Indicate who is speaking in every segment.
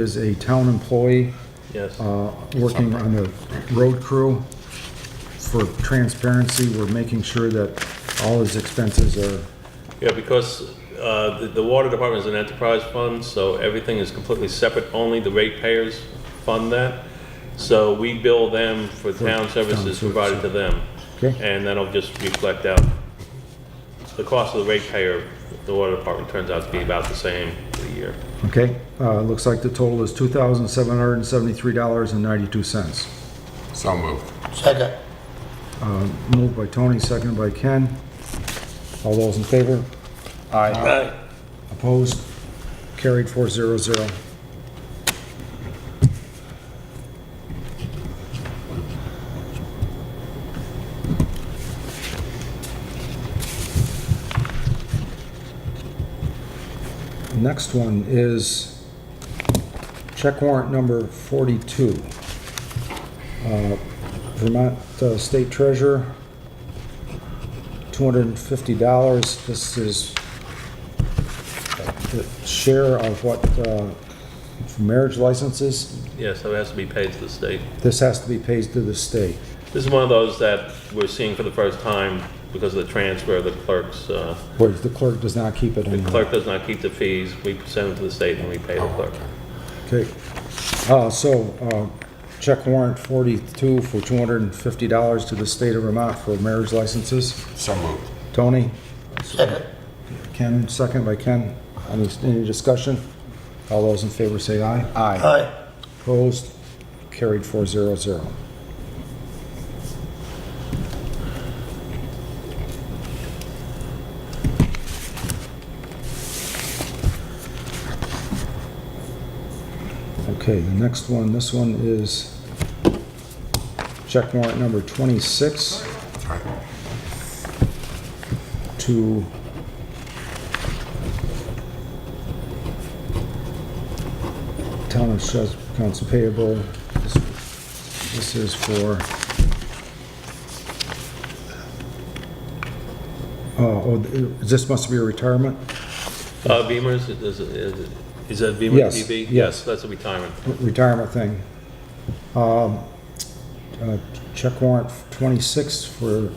Speaker 1: is a town employee
Speaker 2: Yes.
Speaker 1: uh, working on the road crew. For transparency, we're making sure that all his expenses are,
Speaker 2: Yeah, because uh, the the water department is an enterprise fund, so everything is completely separate, only the ratepayers fund that. So we bill them for town services
Speaker 1: services.
Speaker 2: provided to them.
Speaker 1: Okay.
Speaker 2: And that'll just reflect out. The cost of the ratepayer, the water department turns out to be about the same for the year.
Speaker 1: okay? Uh, Looks like the total is $2,773.92.
Speaker 3: So moved.
Speaker 4: Second.
Speaker 1: Moved by Tony, seconded by Ken. All those in favor? Aye. Opposed? Carried four zero zero. Next one is check warrant number 42. Vermont uh, State Treasurer, $250. This is the share of what, uh, for marriage licenses,
Speaker 2: Yeah, so it has to be paid to the state.
Speaker 1: this has to be paid to the state.
Speaker 2: This is one of those that we're seeing for the first time because of the transfer of the clerks. uh,
Speaker 1: Whereas the clerk does not keep it
Speaker 2: The
Speaker 1: anymore.
Speaker 2: clerk does not keep the fees, we send them to the state and we pay the clerk.
Speaker 1: Oh, Okay. Uh, So, uh, check warrant 42 for $250 to the state of Vermont for marriage licenses.
Speaker 3: So moved.
Speaker 1: Tony?
Speaker 4: Second.
Speaker 1: Ken, second by Ken. Any, any discussion? All those in favor say aye. Aye.
Speaker 4: Aye.
Speaker 1: Opposed? Carried four zero zero. Okay, the next one, this one is check warrant number 26
Speaker 3: That's right.
Speaker 1: to Town of Shas, Council Payable. This this is for, oh, oh, is this must be a retirement?
Speaker 2: Uh, Beamers, is, is- is that Beamer
Speaker 1: Yes,
Speaker 2: TV?
Speaker 1: yes.
Speaker 2: That's a retirement.
Speaker 1: retirement thing. Um, uh, Check warrant 26 for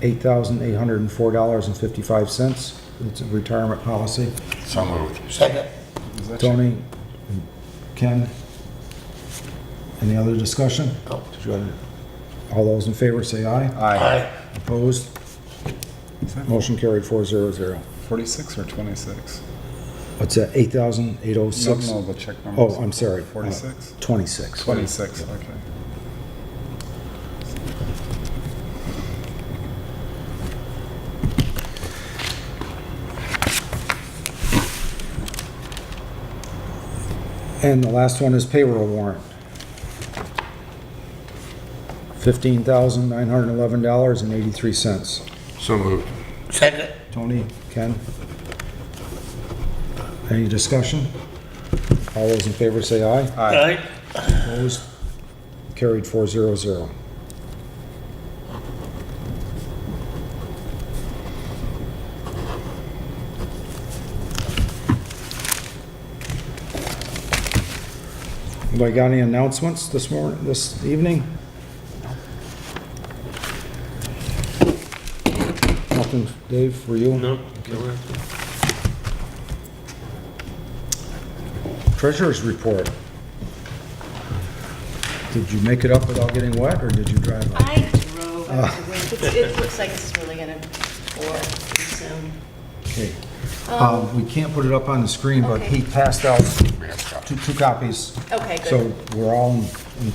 Speaker 1: $8,804.55. It's a retirement policy.
Speaker 3: So moved.
Speaker 4: Second.
Speaker 1: Tony, Ken, any other discussion?
Speaker 4: No.
Speaker 1: Did you have any- All those in favor say aye.
Speaker 4: Aye.
Speaker 1: Opposed? Motion carried four zero zero.
Speaker 5: 46 Oh, or 26?
Speaker 1: What's that,
Speaker 5: No,
Speaker 1: 8,806?
Speaker 5: no, the check number.
Speaker 1: Oh, I'm sorry. uh,
Speaker 5: 46?
Speaker 1: 26.
Speaker 5: 26, okay.
Speaker 1: And the last one is payroll warrant. $15,911.83.
Speaker 3: So moved.
Speaker 4: Second.
Speaker 1: Tony, Ken? Any discussion? All those in favor say aye.
Speaker 4: Aye.
Speaker 1: Opposed? Carried four zero zero. Anybody got any announcements this morning, this evening? Nothing, Dave, for you?
Speaker 2: No, no,
Speaker 1: Treasurer's report. Did you make it up without getting wet, or did you drive up?
Speaker 6: I drove up to Wink. It's- It looks like it's really going to pour soon.
Speaker 1: Okay. Um, We can't put it up on the screen, but he passed out two, two copies.
Speaker 6: Okay, good.
Speaker 1: So we're all, in- in-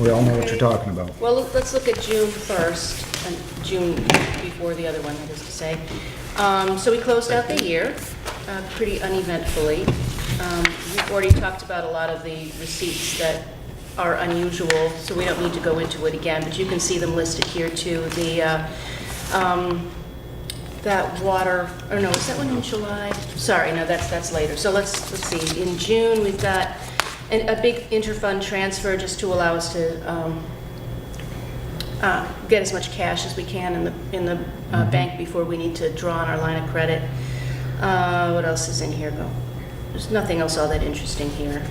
Speaker 1: we all know what you're talking about.
Speaker 6: Well, look- let's look at June first, and June before the other one, that is to say. Um, So we closed out the year uh, pretty uneventfully. Um, We've already talked about a lot of the receipts that are unusual, so we don't need to go into it again, but you can see them listed here too. The, uh, um, that water, or no, is that one in July? Sorry, no, that's, that's later. So let's, let's see, in June, we've got an- a big interfund transfer just to allow us to um, uh, get as much cash as we can in the, in the uh, bank before we need to draw on our line of credit. Uh, What else is in here, Go? there's nothing else all that interesting here.